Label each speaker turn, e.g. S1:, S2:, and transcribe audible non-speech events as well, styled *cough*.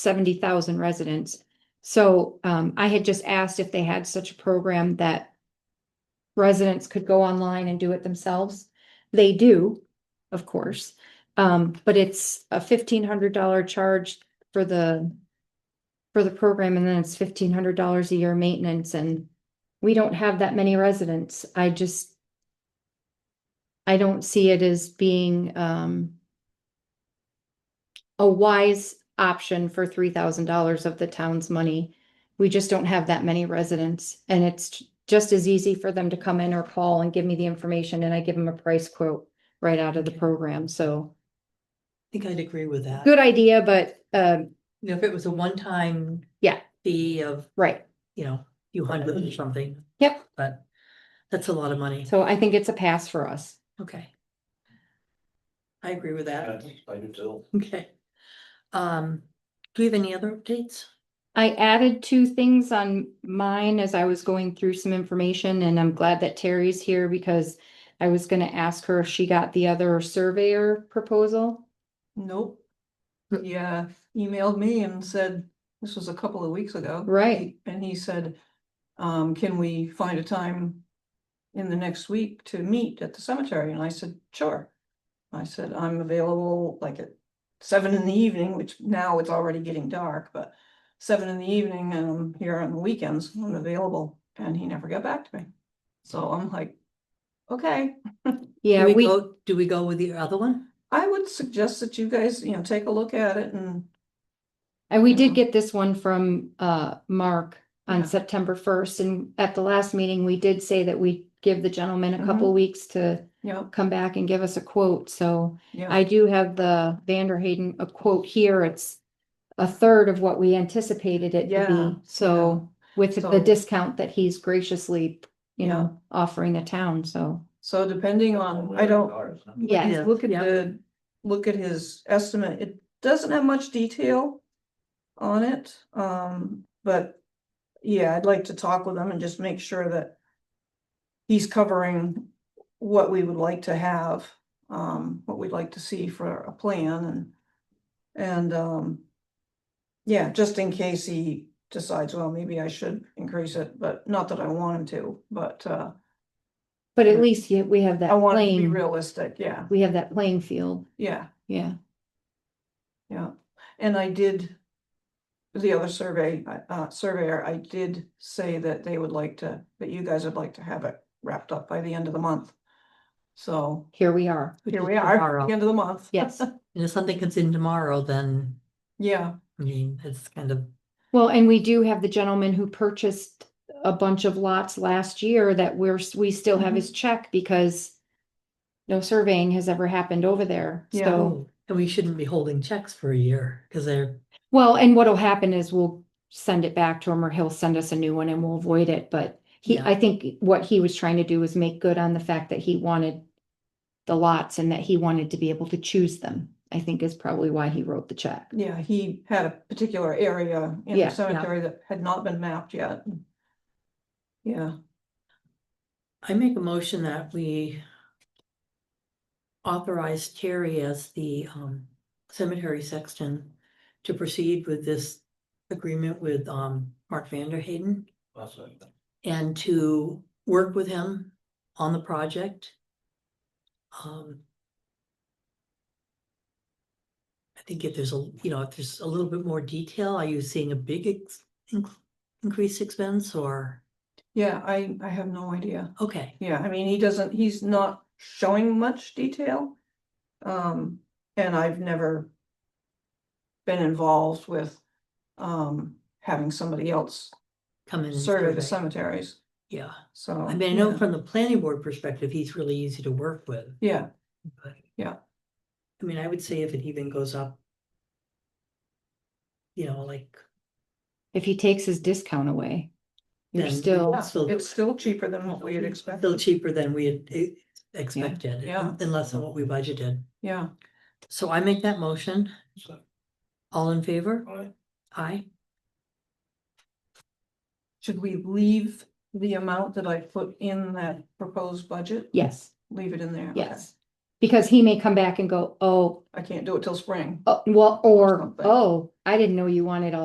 S1: seventy thousand residents. So um, I had just asked if they had such a program that residents could go online and do it themselves. They do, of course, um, but it's a fifteen hundred dollar charge for the for the program, and then it's fifteen hundred dollars a year maintenance, and we don't have that many residents. I just I don't see it as being um a wise option for three thousand dollars of the town's money. We just don't have that many residents and it's just as easy for them to come in or call and give me the information and I give them a price quote right out of the program. So
S2: think I'd agree with that.
S1: good idea, but um,
S2: You know, if it was a one-time.
S1: Yeah.
S2: Fee of,
S1: right.
S2: you know, few hundred or something.
S1: Yep.
S2: But that's a lot of money.
S1: So I think it's a pass for us.
S2: Okay. I agree with that.
S3: I do too.
S2: Okay. Um, do we have any other updates?
S1: I added two things on mine as I was going through some information and I'm glad that Terry's here because I was gonna ask her if she got the other surveyor proposal.
S4: Nope. Yeah, emailed me and said, this was a couple of weeks ago.
S1: Right.
S4: And he said, um, can we find a time in the next week to meet at the cemetery? And I said, sure. I said, I'm available like at seven in the evening, which now it's already getting dark, but seven in the evening and I'm here on the weekends, I'm available. And he never got back to me. So I'm like, okay.
S1: Yeah,
S2: Do
S1: we,
S2: go- Do we go with the other one?
S4: I would suggest that you guys, you know, take a look at it and
S1: And we did
S4: Mhm.
S1: get this one from uh Mark on
S4: Yeah.
S1: September first, and at the last meeting, we did say that we give the gentleman a couple
S4: Mm-hmm.
S1: weeks to
S4: Yep,
S1: come back and give us a quote, so
S4: yeah,
S1: I do have the Vander Hayden, a quote here, it's a third of what we anticipated it to
S4: Yeah,
S1: be, so with
S4: So-
S1: the discount that he's graciously, you know, offering the town, so,
S4: so depending on, I don't,
S1: Yes.
S2: Yeah,
S4: look at
S2: yeah.
S4: the, look at his estimate, it doesn't have much detail. On it, um, but, yeah, I'd like to talk with him and just make sure that. He's covering what we would like to have, um, what we'd like to see for a plan and. And, um. Yeah, just in case he decides, well, maybe I should increase it, but not that I want him to, but, uh,
S1: but at
S4: Yeah.
S1: least yeah, we have that
S4: I want it to be
S1: playing,
S4: realistic, yeah,
S1: we have that playing field,
S4: yeah.
S1: yeah.
S4: Yeah, and I did. The other survey, uh, uh, surveyor, I did say that they would like to, that you guys would like to have it wrapped up by the end of the month. So
S1: Here we are,
S2: Which
S4: here
S2: is
S4: we are,
S2: tomorrow.
S4: the end of the month.
S1: yes.
S2: And if something comes in tomorrow, then,
S4: *laughs* Yeah,
S2: I mean, it's kind of,
S1: Well, and we do have the gentleman who purchased a bunch of lots last year that we're, we still
S2: Mm-hmm.
S1: have his check because no surveying has ever happened over there.
S4: Yeah.
S1: So,
S2: oh, and we shouldn't be holding checks for a year, because they're,
S1: well, and what'll happen is we'll send it back to him or he'll send us a new one and we'll avoid it. But he,
S2: Yeah.
S1: I think what he was trying to do was make good on the fact that he wanted the lots and that he wanted to be able to choose them, I think is probably why he wrote the check.
S4: yeah, he had a particular area
S1: Yeah,
S4: in the
S1: yeah.
S4: cemetery that had not been mapped yet. Yeah,
S2: I make a motion that we authorize Terry as the um cemetery sexton to proceed with this agreement with um Mark Vander Hayden and to work with him on the project. Um. I think if there's a, you know, if there's a little bit more detail, are you seeing a big ex- inc- increased expense or,
S4: yeah, I, I have no idea.
S2: okay,
S4: Yeah, I mean, he doesn't, he's not showing much detail. Um, and I've never been involved with, um, having somebody else
S2: come in. and
S4: survey the cemeteries,
S2: Yeah.
S4: so.
S2: I mean, I know
S4: yeah,
S2: from the planning board perspective, he's really easy to work with,
S4: Yeah,
S2: but.
S4: Yeah.
S2: I mean, I would say if it even goes up. You know, like,
S1: If he takes his discount away, you're
S2: Then-
S1: still.
S4: yeah,
S2: still-
S4: it's still cheaper than what we had
S2: still
S4: expected,
S2: cheaper than we had eh, expected,
S4: yeah. Mm-hmm.
S2: and less than what we budgeted.
S4: yeah.
S2: So I make that motion, all in favor? Aye.
S4: Should we leave the amount that I put in that proposed budget?
S1: Yes,
S4: Leave it in there? Okay.
S1: yes. Because he may come back and go, oh,
S4: I can't do it till spring.
S1: oh, well, or,
S4: Something.
S1: oh, I didn't know you wanted all